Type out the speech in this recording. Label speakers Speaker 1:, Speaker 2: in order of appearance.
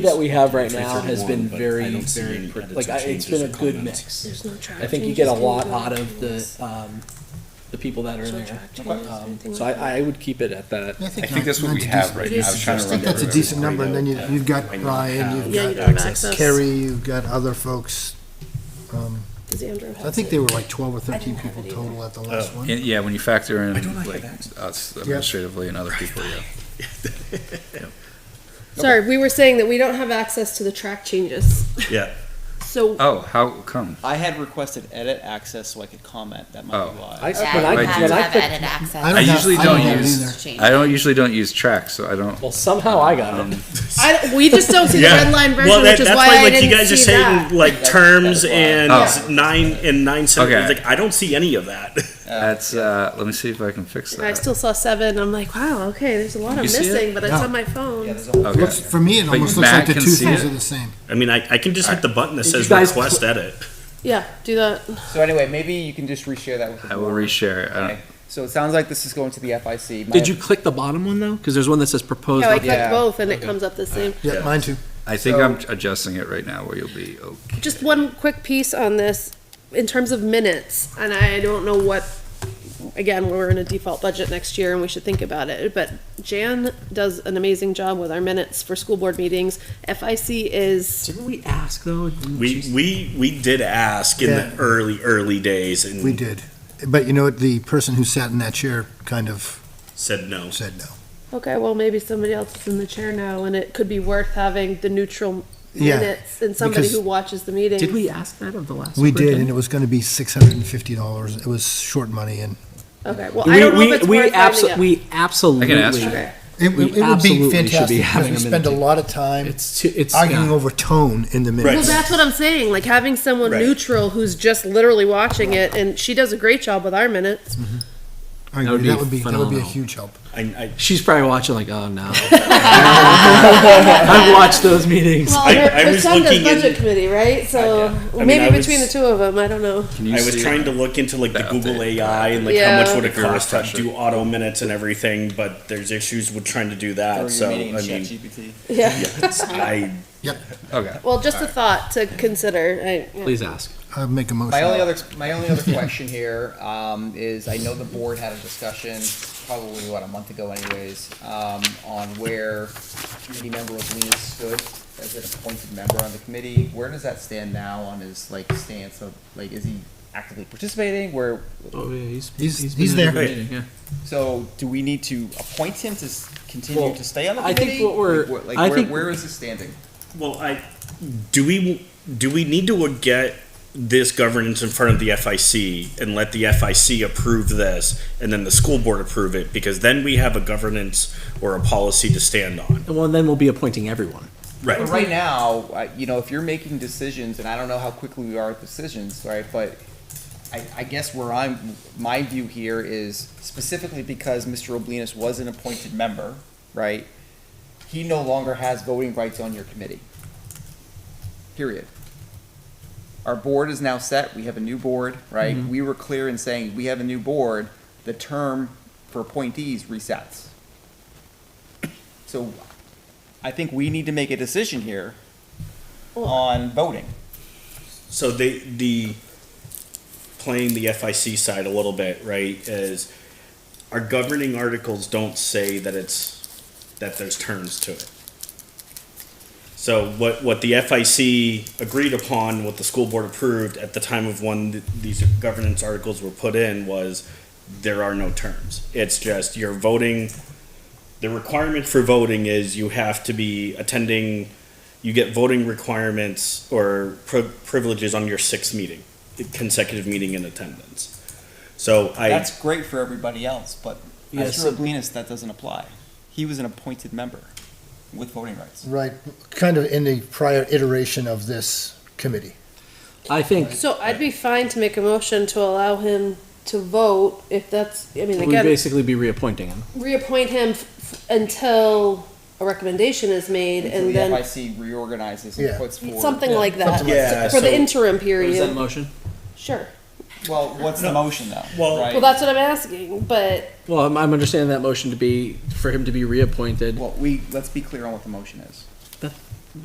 Speaker 1: that we have right
Speaker 2: It's
Speaker 1: now
Speaker 2: 331,
Speaker 1: has been
Speaker 2: but I
Speaker 1: very,
Speaker 2: don't see
Speaker 1: very,
Speaker 2: any
Speaker 1: pr-
Speaker 2: edits
Speaker 1: like,
Speaker 2: or
Speaker 1: I- it's
Speaker 2: changes
Speaker 1: been a
Speaker 2: or
Speaker 1: good
Speaker 2: comments.
Speaker 1: mix.
Speaker 3: There's no track
Speaker 1: I think you
Speaker 3: changes,
Speaker 1: get a
Speaker 3: no
Speaker 1: lot
Speaker 3: no
Speaker 1: out of the,
Speaker 3: rules.
Speaker 1: um, the people that are
Speaker 3: No
Speaker 1: there.
Speaker 3: track changes,
Speaker 1: Um,
Speaker 3: anything
Speaker 1: So
Speaker 3: like that.
Speaker 1: I, I would keep it at that.
Speaker 4: I
Speaker 2: I
Speaker 4: think
Speaker 2: think that's what we have right now. I was trying to
Speaker 4: I think
Speaker 2: remember.
Speaker 4: that's a
Speaker 2: everything.
Speaker 4: decent number, and then you- you've got
Speaker 2: I know
Speaker 4: Ryan,
Speaker 2: how
Speaker 4: you've
Speaker 3: Yeah,
Speaker 4: got
Speaker 3: you don't have access.
Speaker 4: Kerry, you've got other folks. Um,
Speaker 3: Does Andrew have
Speaker 4: I think
Speaker 3: it?
Speaker 4: they were like twelve or thirteen
Speaker 3: have
Speaker 4: people
Speaker 3: it either.
Speaker 4: total at the
Speaker 2: Oh.
Speaker 4: last one.
Speaker 5: And, yeah, when you factor in
Speaker 2: I don't like
Speaker 5: like
Speaker 2: that.
Speaker 5: us administratively and other people, yeah.
Speaker 3: Sorry, we were saying that we don't have access to the track changes.
Speaker 2: Yeah.
Speaker 3: So
Speaker 6: Uh,
Speaker 5: Oh, how come?
Speaker 7: I had requested edit access so I could comment. That might
Speaker 5: Oh.
Speaker 7: be why.
Speaker 1: I-
Speaker 8: Yeah,
Speaker 1: when I-
Speaker 8: you
Speaker 5: I
Speaker 8: have
Speaker 5: do-
Speaker 8: to
Speaker 1: when I
Speaker 8: have
Speaker 1: click-
Speaker 8: edit access.
Speaker 4: I
Speaker 5: I
Speaker 4: have-
Speaker 5: usually
Speaker 4: I
Speaker 5: don't
Speaker 4: don't have
Speaker 5: use,
Speaker 4: either.
Speaker 8: Change.
Speaker 5: I don't usually don't use tracks, so I don't.
Speaker 1: Well, somehow I got it.
Speaker 3: I, we just don't see the red line version,
Speaker 6: well, that,
Speaker 3: which is
Speaker 6: that's
Speaker 3: why
Speaker 6: why,
Speaker 3: I
Speaker 6: like
Speaker 3: didn't
Speaker 6: you guys
Speaker 3: see
Speaker 6: are saying
Speaker 3: that.
Speaker 6: like terms
Speaker 7: that is why.
Speaker 6: and
Speaker 5: Oh.
Speaker 6: nine and nine sentences.
Speaker 5: Okay.
Speaker 6: Like I don't see any of that.
Speaker 5: That's, uh, let me see if I can fix
Speaker 3: I
Speaker 5: that.
Speaker 3: still saw seven. I'm like, wow, okay, there's a lot I'm
Speaker 5: You see it?
Speaker 3: missing, but it's
Speaker 4: Yeah.
Speaker 3: on my phone.
Speaker 7: Yeah, there's a whole
Speaker 5: Okay.
Speaker 4: Looks, for me, it
Speaker 5: But
Speaker 4: almost looks like
Speaker 5: Matt
Speaker 4: the
Speaker 5: can
Speaker 4: two
Speaker 5: see
Speaker 4: things
Speaker 5: it?
Speaker 4: are the same.
Speaker 6: I mean, I, I can just hit the button that
Speaker 1: Did
Speaker 6: says
Speaker 1: you guys
Speaker 6: request
Speaker 1: cl-
Speaker 6: edit.
Speaker 3: yeah, do that.
Speaker 7: So anyway, maybe you can just reshare that with the
Speaker 5: I will
Speaker 7: board.
Speaker 5: reshare. it. I don't-
Speaker 7: Okay. So it sounds like this is going to the FIC. My-
Speaker 1: Did you click the bottom one though? Cause there's one that says proposed.
Speaker 3: Yeah, I
Speaker 1: op-
Speaker 3: clicked
Speaker 7: Yeah.
Speaker 3: both, and it comes up the same.
Speaker 4: Yeah, mine too.
Speaker 5: I think
Speaker 7: So-
Speaker 5: I'm adjusting it right now where you'll be okay.
Speaker 3: Just one quick piece on this, in terms of minutes, and I don't know what, again, we're in a default budget next year and we should think about it, but Jan does an amazing job with our minutes for school board meetings. FIC is,
Speaker 1: Didn't we ask though?
Speaker 6: We we we did ask in
Speaker 4: Yeah.
Speaker 6: the early early days and
Speaker 4: We did. But you know what? The person who sat in that chair kind of
Speaker 6: said no.
Speaker 4: said no.
Speaker 3: okay, well, maybe somebody else is in the chair now and it could be worth having the neutral
Speaker 4: Yeah,
Speaker 3: minutes and somebody who
Speaker 4: because-
Speaker 3: watches the meeting.
Speaker 1: Did we ask that of the last?
Speaker 4: we did, and
Speaker 1: superintendent?
Speaker 4: it was gonna be six hundred and fifty dollars. It was short money and
Speaker 3: Okay, well, I don't know if it's
Speaker 1: We, we,
Speaker 3: worth finding
Speaker 1: abso-
Speaker 3: out.
Speaker 1: we absolutely.
Speaker 5: ask her.
Speaker 3: Okay,
Speaker 4: it, it
Speaker 1: We
Speaker 4: would be
Speaker 1: absolutely should be
Speaker 4: fantastic because
Speaker 1: having
Speaker 4: we
Speaker 1: a
Speaker 4: spend a
Speaker 1: minute.
Speaker 4: lot of time
Speaker 1: It's, too- it's.
Speaker 4: arguing
Speaker 1: yeah.
Speaker 4: over tone in the
Speaker 3: well,
Speaker 4: minutes.
Speaker 3: that's what I'm saying, like having someone
Speaker 6: Right.
Speaker 3: neutral who's just literally watching it and she does a great job with our minutes.
Speaker 4: I
Speaker 1: That would
Speaker 4: agree. That
Speaker 1: be
Speaker 4: would be, that would be a
Speaker 1: phenomenal.
Speaker 4: huge help.
Speaker 6: I, I,
Speaker 1: She's probably watching like, oh no. I've watched those meetings.
Speaker 3: Well,
Speaker 6: I-
Speaker 3: her,
Speaker 6: I
Speaker 3: her
Speaker 6: was
Speaker 3: son does
Speaker 6: looking in-
Speaker 3: budget committee, right? So
Speaker 6: I mean,
Speaker 3: maybe
Speaker 6: I was-
Speaker 3: between the two of them, I don't know.
Speaker 5: Can you
Speaker 6: I was
Speaker 5: see
Speaker 6: trying
Speaker 5: it?
Speaker 6: to look into like the
Speaker 5: That
Speaker 6: Google
Speaker 5: update.
Speaker 6: AI and like
Speaker 3: Yeah.
Speaker 6: how much would it
Speaker 5: Your
Speaker 6: cost to
Speaker 5: refresher.
Speaker 6: do auto minutes and everything, but there's issues with trying to do
Speaker 7: Throw
Speaker 6: that.
Speaker 7: your
Speaker 6: So I
Speaker 7: meeting in
Speaker 6: mean,
Speaker 7: ChatGPT.
Speaker 3: Yeah.
Speaker 6: I
Speaker 5: Okay.
Speaker 3: Well, just a thought to consider. I, yeah.
Speaker 1: Please ask.
Speaker 4: I'd make a motion.
Speaker 7: My only other, my only other question here um, is, I know the board had a discussion, probably what, a month ago anyways, um, on where committee member Lena stood as an appointed member on the committee. Where does that stand now on his, like, stance of, like, is he actively participating? Where,
Speaker 1: Oh, yeah, he's,
Speaker 4: He's- he's
Speaker 1: been in
Speaker 4: there.
Speaker 1: every meeting, yeah.
Speaker 7: so do we need to appoint him to s- continue
Speaker 1: Well,
Speaker 7: to stay on the
Speaker 1: I think
Speaker 7: committee?
Speaker 1: what we're-
Speaker 7: Like, what-
Speaker 1: I
Speaker 7: Like, where,
Speaker 1: think-
Speaker 7: where is his standing?
Speaker 6: Well, I do we do we need to get this governance in front of the FIC and let the FIC approve this and then the school board approve it because then we have a governance or a policy to stand on.
Speaker 1: And well, then we'll be appointing everyone.
Speaker 6: Right.
Speaker 7: But right now, uh, you know, if you're making decisions, and I don't know how quickly we are at decisions, right? But I, I guess where I'm, my view here is specifically because Mr. Oblinus was an appointed member, right? He no longer has voting rights on your committee. Period. Our board is now set. We have a new board, right? We were clear in saying we have a new board. The term for appointees resets. So I think we need to make a decision here on voting.
Speaker 6: So they the playing the FIC side a little bit, right, is our governing articles don't say that it's that there's terms to it. So what what the FIC agreed upon, what the school board approved at the time of when th- these governance articles were put in was there are no terms. It's just you're voting the requirement for voting is you have to be attending you get voting requirements or pri- privileges on your sixth meeting, consecutive meeting in attendance. So I,
Speaker 7: That's great for everybody else, but
Speaker 1: Yes.
Speaker 7: Mr. Oblinus, that doesn't apply. He was an appointed member with voting rights.
Speaker 4: Right, kind of in the prior iteration of this committee.
Speaker 1: I think
Speaker 3: So I'd be fine to make a motion to allow him to vote if that's, I mean,
Speaker 1: we
Speaker 3: again,
Speaker 1: basically be reappointing him.
Speaker 3: reappoint him f- until a recommendation is made
Speaker 7: Until
Speaker 3: and then
Speaker 7: the FIC reorganizes and
Speaker 4: Yeah.
Speaker 7: puts forward.
Speaker 3: something like
Speaker 6: like
Speaker 3: that
Speaker 6: that. Yeah,
Speaker 3: for the
Speaker 6: so-
Speaker 3: interim period.
Speaker 1: motion?
Speaker 3: Sure.
Speaker 7: Well, what's the motion though?
Speaker 6: Well-
Speaker 7: right?
Speaker 3: Well, that's what I'm asking, but
Speaker 1: Well, I'm, I'm understanding that motion to be, for him to be reappointed.
Speaker 7: Well, we, let's be clear on what the motion is.